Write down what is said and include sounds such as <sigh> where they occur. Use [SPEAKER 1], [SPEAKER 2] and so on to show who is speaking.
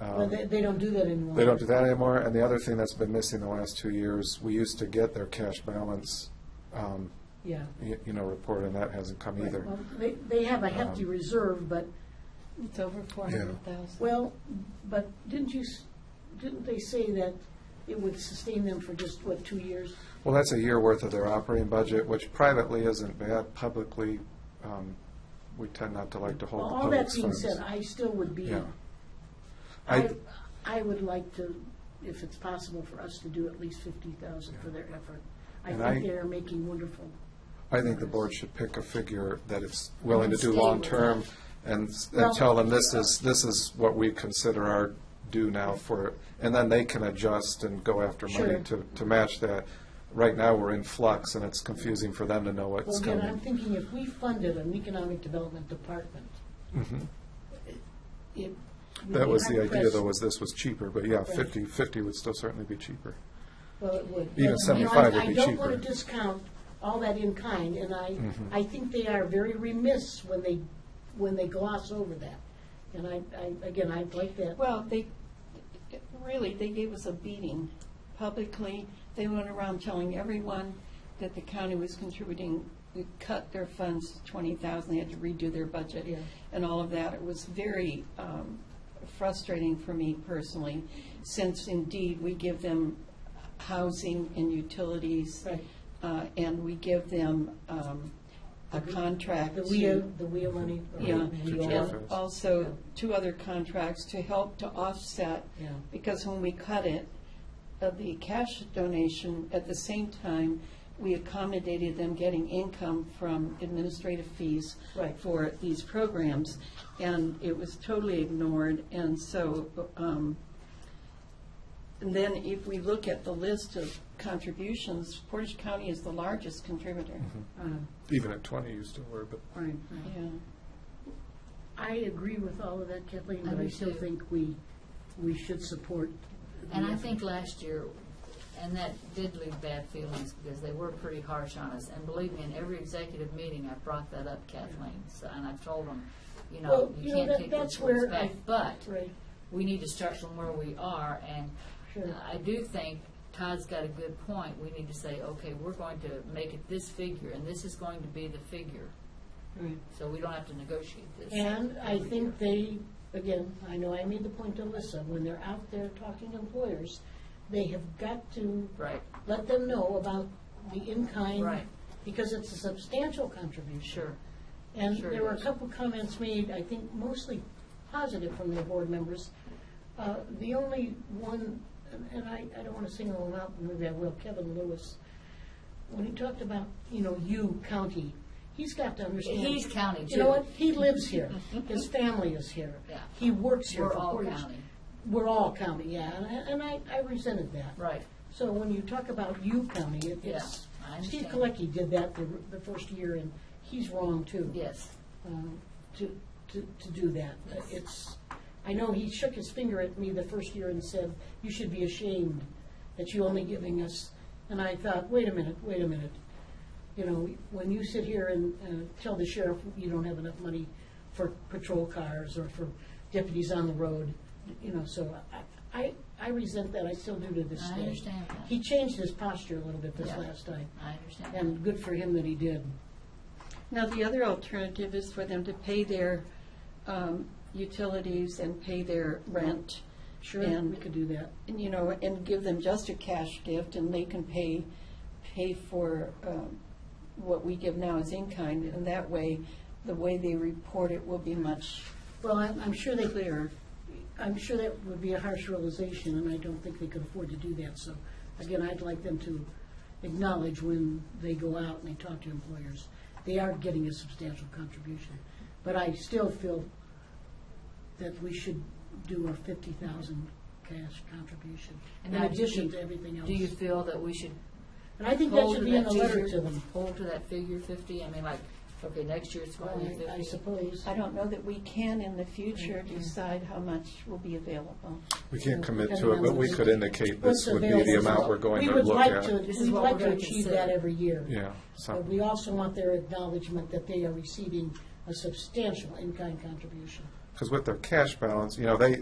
[SPEAKER 1] Oh, they, they don't do that anymore.
[SPEAKER 2] Um, They don't do that anymore, and the other thing that's been missing the last two years, we used to get their cash balance, um,
[SPEAKER 1] Yeah.
[SPEAKER 2] y- you know, report, and that hasn't come either.
[SPEAKER 1] Well, They, they have a hefty
[SPEAKER 2] Um,
[SPEAKER 1] reserve, but,
[SPEAKER 3] It's over four hundred thousand.
[SPEAKER 1] well, but didn't you, s- didn't they say that it would sustain them for just, what, two years?
[SPEAKER 2] Well, that's a year worth of their operating budget, which privately isn't bad, publicly, um, we tend not to like to hold the
[SPEAKER 1] All
[SPEAKER 2] public
[SPEAKER 1] that
[SPEAKER 2] funds.
[SPEAKER 1] being said, I still would be,
[SPEAKER 2] Yeah.
[SPEAKER 1] I,
[SPEAKER 2] I,
[SPEAKER 1] I would like to, if it's possible for us to do at least fifty thousand for their effort. I
[SPEAKER 2] And
[SPEAKER 1] think
[SPEAKER 2] I-
[SPEAKER 1] they're making wonderful.
[SPEAKER 2] I think the board should pick a figure that it's willing to do
[SPEAKER 1] Stay with
[SPEAKER 2] long-term and, s-
[SPEAKER 1] Well-
[SPEAKER 2] and tell them this is, this is what we consider our due now for, and then they can adjust and go after money
[SPEAKER 1] Sure.
[SPEAKER 2] to, to match that. Right now, we're in flux and it's confusing for them to know
[SPEAKER 1] Well,
[SPEAKER 2] what's
[SPEAKER 1] again, I'm
[SPEAKER 2] coming.
[SPEAKER 1] thinking if we funded an economic development department,
[SPEAKER 2] Mhm.
[SPEAKER 1] it. we'd
[SPEAKER 2] That
[SPEAKER 1] be
[SPEAKER 2] was the idea
[SPEAKER 1] hard-pressed-
[SPEAKER 2] though, was this was cheaper, but yeah,
[SPEAKER 1] Right.
[SPEAKER 2] fifty, fifty would still certainly be cheaper.
[SPEAKER 1] Well, it would.
[SPEAKER 2] Even
[SPEAKER 1] But,
[SPEAKER 2] 75
[SPEAKER 1] you know, I-
[SPEAKER 2] would be
[SPEAKER 1] I don't want
[SPEAKER 2] cheaper. Mm-hmm.
[SPEAKER 1] to discount all that in kind, and I, I think they are very remiss when they, when they gloss over that. And I, I, again, I'd like that.
[SPEAKER 3] Well, they, really, they gave us a beating publicly. They went around telling everyone that the county was contributing, we cut their funds to twenty thousand, they had to redo their budget
[SPEAKER 1] Yeah.
[SPEAKER 3] and all of that. It was very um, frustrating for me personally, since indeed, we give them housing and utilities.
[SPEAKER 1] Right.
[SPEAKER 3] uh, And we give them um, a contract
[SPEAKER 1] The
[SPEAKER 3] to-
[SPEAKER 1] wheel, the wheel money. or
[SPEAKER 3] yeah,
[SPEAKER 1] wheel.
[SPEAKER 3] and
[SPEAKER 1] Yeah.
[SPEAKER 3] also two other contracts to help to offset,
[SPEAKER 1] Yeah.
[SPEAKER 3] because when we cut it, uh, the cash donation, at the same time, we accommodated them getting income from administrative fees
[SPEAKER 1] Right.
[SPEAKER 3] for these programs, and it was totally ignored, and so, um, and then if we look at the list of contributions, Portage County is the largest contributor.
[SPEAKER 1] Uh,
[SPEAKER 2] Even at twenty, you still were, but
[SPEAKER 1] right, right.
[SPEAKER 3] Yeah.
[SPEAKER 1] I agree with all of that, Kathleen,
[SPEAKER 4] I
[SPEAKER 1] but I
[SPEAKER 4] do
[SPEAKER 1] still
[SPEAKER 4] too.
[SPEAKER 1] think we, we should support.
[SPEAKER 4] And I think last year, and that did leave bad feelings because they were pretty harsh on us. And believe me, in every executive meeting, I brought that up, Kathleen, so- and I've told them, you know,
[SPEAKER 1] Well, you
[SPEAKER 4] you
[SPEAKER 1] know,
[SPEAKER 4] can't
[SPEAKER 1] that-
[SPEAKER 4] take
[SPEAKER 1] that's
[SPEAKER 4] those words
[SPEAKER 1] where I-
[SPEAKER 4] back. But
[SPEAKER 1] Right,
[SPEAKER 4] we need to start from where we are, and uh,
[SPEAKER 1] Sure.
[SPEAKER 4] I do think Todd's got a good point. We need to say, okay, we're going to make it this figure, and this is going to be the figure,
[SPEAKER 1] right.
[SPEAKER 4] so we don't have to negotiate this.
[SPEAKER 1] And I think they, again, I know I made the point to Alyssa, when they're out there talking to employers, they have got to
[SPEAKER 4] Right,
[SPEAKER 1] let them know about the in-kind.
[SPEAKER 4] Right.
[SPEAKER 1] Because it's a substantial contribution.
[SPEAKER 4] sure,
[SPEAKER 1] And
[SPEAKER 4] Sure
[SPEAKER 1] there were a
[SPEAKER 4] is.
[SPEAKER 1] couple comments made, I think mostly positive from their board members. Uh, The only one, and- and I, I don't want to single him out, but maybe I will, Kevin Lewis, when he talked about, you know, you, county, he's got to understand.
[SPEAKER 4] He's county,
[SPEAKER 1] You know
[SPEAKER 4] too.
[SPEAKER 1] what, he lives
[SPEAKER 4] <laughs>
[SPEAKER 1] here, his family is here.
[SPEAKER 4] Yeah.
[SPEAKER 1] He works here
[SPEAKER 4] We're
[SPEAKER 1] for
[SPEAKER 4] all
[SPEAKER 1] Portage.
[SPEAKER 4] county.
[SPEAKER 1] We're all county, yeah, and I- and I, I resented that.
[SPEAKER 4] right.
[SPEAKER 1] So when you talk about you county, it- it's,
[SPEAKER 4] Yeah, I
[SPEAKER 1] Steve
[SPEAKER 4] understand.
[SPEAKER 1] Colecki did that the, the first year, and he's wrong, too
[SPEAKER 4] Yes,
[SPEAKER 1] um, to, to, to do that. Uh, It's, I know he shook his finger at me the first year and said, you should be ashamed that you only giving us, and I thought, wait a minute, wait a minute. You know, when you sit here and, uh tell the sheriff you don't have enough money for patrol cars or for deputies on the road, you know, so I, I, I resent that, I still do to this
[SPEAKER 4] I
[SPEAKER 1] day.
[SPEAKER 4] understand that.
[SPEAKER 1] He changed his posture a little bit this
[SPEAKER 4] Yeah.
[SPEAKER 1] last time,
[SPEAKER 4] I understand.
[SPEAKER 1] and good for him that he did.
[SPEAKER 3] Now, the other alternative is for them to pay their um, utilities and pay their rent,
[SPEAKER 1] Sure,
[SPEAKER 3] And-
[SPEAKER 1] we could do that.
[SPEAKER 3] and, you know, and give them just a cash gift, and they can pay, pay for um, what we give now as in-kind, and that way, the way they report it will be much
[SPEAKER 1] Well, I'm, I'm sure they,
[SPEAKER 3] clearer.
[SPEAKER 1] I'm sure that would be a harsh realization, and I don't think they could afford to do that. So, again, I'd like them to acknowledge when they go out and they talk to employers, they are getting a substantial contribution. But I still feel that we should do a fifty thousand cash contribution
[SPEAKER 4] And
[SPEAKER 1] in
[SPEAKER 4] now, do
[SPEAKER 1] addition
[SPEAKER 4] you-
[SPEAKER 1] to everything else.
[SPEAKER 4] Do you feel that we should
[SPEAKER 1] And I think that
[SPEAKER 4] hold to
[SPEAKER 1] should be in
[SPEAKER 4] that
[SPEAKER 1] a letter
[SPEAKER 4] figure?
[SPEAKER 1] to them,
[SPEAKER 4] Hold to that figure fifty? I mean, like, okay, next year it's going to
[SPEAKER 1] I- I
[SPEAKER 4] fifty.
[SPEAKER 1] suppose.
[SPEAKER 3] I don't know that we can, in the future, decide how much will be available.
[SPEAKER 2] we can't commit to
[SPEAKER 1] Depending
[SPEAKER 2] it,
[SPEAKER 1] on
[SPEAKER 2] but we
[SPEAKER 1] what's-
[SPEAKER 2] could indicate
[SPEAKER 1] what's
[SPEAKER 2] this would be the
[SPEAKER 1] available.
[SPEAKER 2] amount we're going to
[SPEAKER 1] We would
[SPEAKER 2] look
[SPEAKER 1] like
[SPEAKER 2] at.
[SPEAKER 1] to,
[SPEAKER 4] This is
[SPEAKER 1] we'd
[SPEAKER 4] what
[SPEAKER 1] like
[SPEAKER 4] we're
[SPEAKER 1] to
[SPEAKER 4] gonna
[SPEAKER 1] achieve
[SPEAKER 4] consider.
[SPEAKER 1] that every year.
[SPEAKER 2] Yeah, so-
[SPEAKER 1] But we also want their acknowledgement that they are receiving a substantial in-kind contribution.
[SPEAKER 2] Because with their cash balance, you know, they,